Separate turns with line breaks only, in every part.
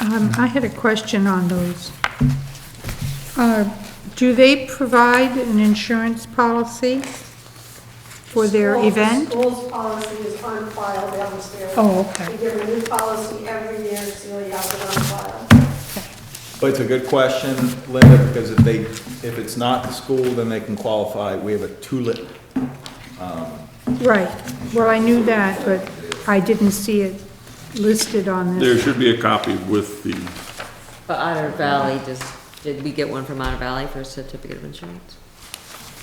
Um, I had a question on those. Uh, Do they provide an insurance policy for their
Schools-
event?
School's policy is on file downstairs.
Oh, okay.
We get a new policy every year, Celia has it on file.
But it's a good question, Linda, because if they, if it's not the school, then they can qualify. We have a tulip.
Right, well, I knew that, but I didn't see it listed on
There
this.
should be a copy with the,
But Otter Valley, just, did we get one from Otter Valley for a certificate of insurance?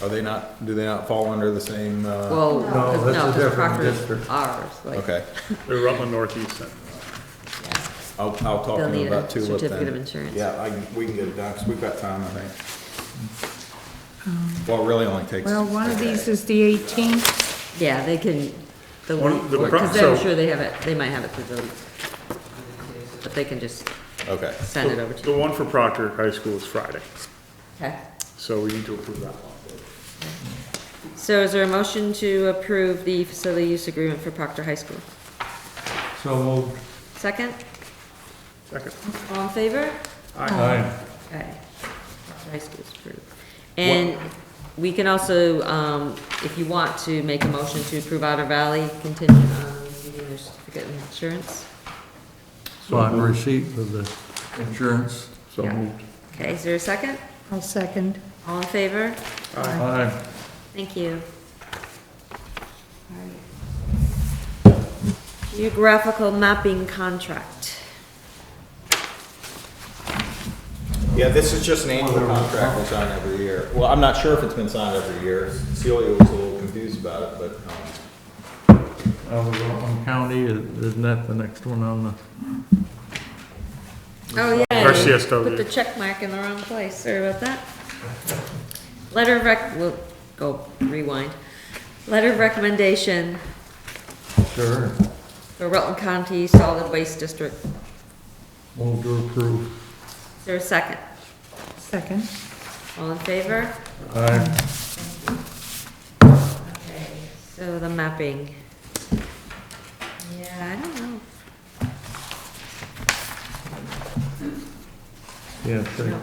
Are they not, do they not fall under the same, uh,
Well,
No, that's a
no, because
different
Proctor's
district.
ours, like.
okay.
the Rutland Northeast Center.
I'll, I'll talk
They'll
to them
need a
about tulip then.
certificate of insurance.
Yeah, I, can- we can get it done, 'cause we've got time, I think.
Um,
Well, it really only takes.
Well, one of these is the 18th.
Yeah, they can, the,
One of the pro-
because I'm
so-
sure they have it, they might have it through the, but they can just
Okay,
send it over to
The
you.
one for Proctor High School is Friday,
Okay.
so we need to approve that one.
So is there a motion to approve the facility use agreement for Proctor High School?
So moved.
Second,
Second.
all in favor?
Aye.
Okay. High school's approved. And we can also, um, if you want to make a motion to approve Otter Valley contingent on receiving their certificate of insurance.
So on receipt for the insurance.
So
Yeah.
moved.
Okay, is there a second?
I'll second.
All in favor?
Aye.
Thank you. Geographical mapping contract.
yeah, this is just an annual contract we sign every year. Well, I'm not sure if it's been signed every year. Celia was a little confused about it, but, um,
Uh, we're on county, isn't that the next one on the?
Oh, yeah.
Our siesta.
Put the check mark in the wrong place, sorry about that. Letter of rec, we'll go rewind. Letter of recommendation
Sure.
for Rutland County Solid Waste District.
Move to approve.
Is there a second?
Second.
All in favor?
Aye.
Okay. So the mapping. Yeah, I don't know.
Yeah, sure.
I don't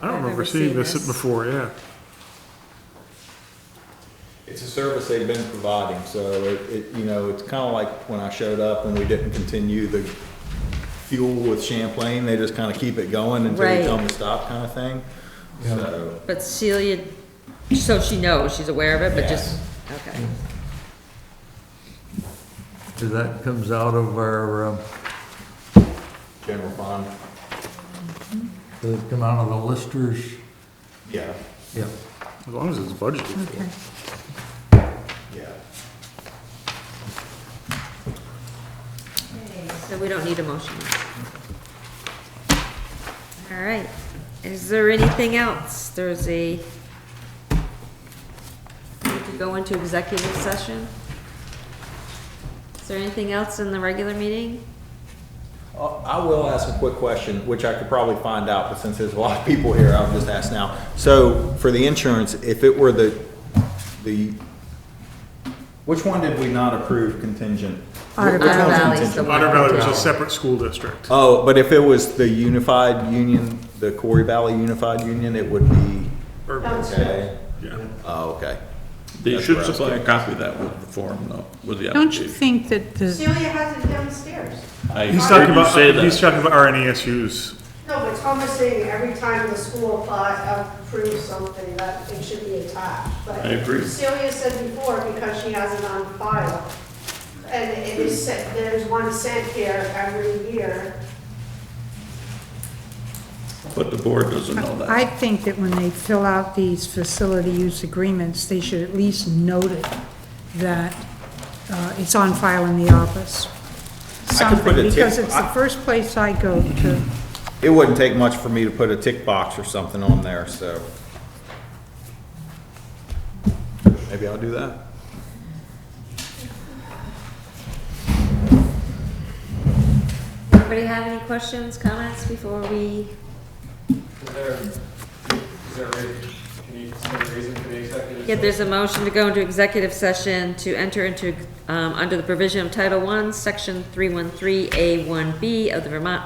I've
remember
never
seeing
seen
this
this.
before, yeah.
It's a service they've been providing, so it, it, you know, it's kind of like when I showed up and we didn't continue the fuel with Champlain, they just kind of keep it going until they tell them to stop kind of thing. So,
But Celia, so she knows, she's aware of it, but just, okay.
So that comes out of our, um,
general fund,
does it come out of the listers?
yeah,
Yep.
As long as it's budgeted for.
yeah.
So we don't need a motion. All right, is there anything else? There's a, need to go into executive session? Is there anything else in the regular meeting?
Uh, I will ask a quick question, which I could probably find out, but since there's a lot of people here, I'll just ask now. So for the insurance, if it were the, the, which one did we not approve contingent?
Otter
Which one's
Valley. Otter Valley's the
contingent?
one.
Otter Valley was a separate school district.
Oh, but if it was the unified union, the Corey Valley Unified Union, it would be,
Or-
okay,
yeah.
oh, okay.
They
That's
should
where I was
supply a copy of that with the form, though, with the
Don't you
application.
think that the,
Celia has it downstairs.
I
He's
heard
talking
you
about,
say
he's
that.
talking about E RNESU's.
No, but it's almost saying every time the school applies, approves something, that it should be attached. But
I agree.
Celia said before, because she has it on file, and it is sent, there's one sent here every year.
But the board doesn't know
I
that.
think that when they fill out these facility use agreements, they should at least note it, that uh, it's on file in the office.
I could put
Something,
a tick-
because it's the
I-
first place I go to.
It wouldn't take much for me to put a tick box or something on there, so. Maybe I'll do that.
Anybody have any questions, comments before we?
Is there, is there, a reason- can you, is there a reason for the executive?
Yeah, there's a motion to go into executive session to enter into, um, under the provision of Title I, Section 313A1B of the Vermont